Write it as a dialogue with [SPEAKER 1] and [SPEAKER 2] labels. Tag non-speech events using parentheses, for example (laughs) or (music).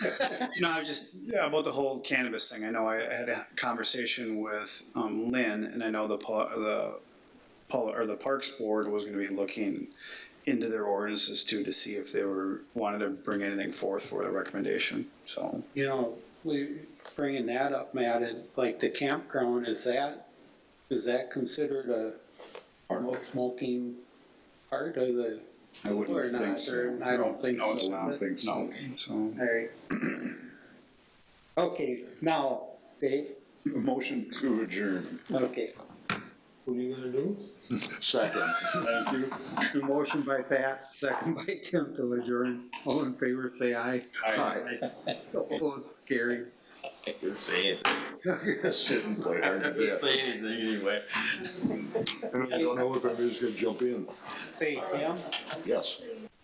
[SPEAKER 1] No, I was just, yeah, about the whole cannabis thing. I know I had a conversation with um, Lynn, and I know the, pol- the, pol- or the Parks Board was gonna be looking into their ordinances too, to see if they were, wanted to bring anything forth for the recommendation, so.
[SPEAKER 2] You know, we, bringing that up, Matt, and like the campground, is that, is that considered a no smoking part of the?
[SPEAKER 3] I wouldn't
[SPEAKER 2] or not,
[SPEAKER 3] think so.
[SPEAKER 2] or I don't think
[SPEAKER 1] No,
[SPEAKER 2] so.
[SPEAKER 1] it's
[SPEAKER 2] is
[SPEAKER 3] I don't
[SPEAKER 2] it?
[SPEAKER 3] think so.
[SPEAKER 1] So,
[SPEAKER 2] Alright. Okay, now, Dave,
[SPEAKER 3] Motion to adjourn.
[SPEAKER 2] okay.
[SPEAKER 4] What are you gonna do?
[SPEAKER 3] Second.
[SPEAKER 4] Thank you.
[SPEAKER 2] A Motion by Pat, second by Tim to adjourn. All in favor, say aye.
[SPEAKER 3] Aye.
[SPEAKER 2] Opposed, carried.
[SPEAKER 5] I could say it.
[SPEAKER 3] Shouldn't (laughs) play
[SPEAKER 5] I
[SPEAKER 3] hard to
[SPEAKER 5] could
[SPEAKER 3] get.
[SPEAKER 5] say anything anyway.
[SPEAKER 3] And I don't know if anybody's gonna jump in.
[SPEAKER 2] Say Tim,
[SPEAKER 3] Yes.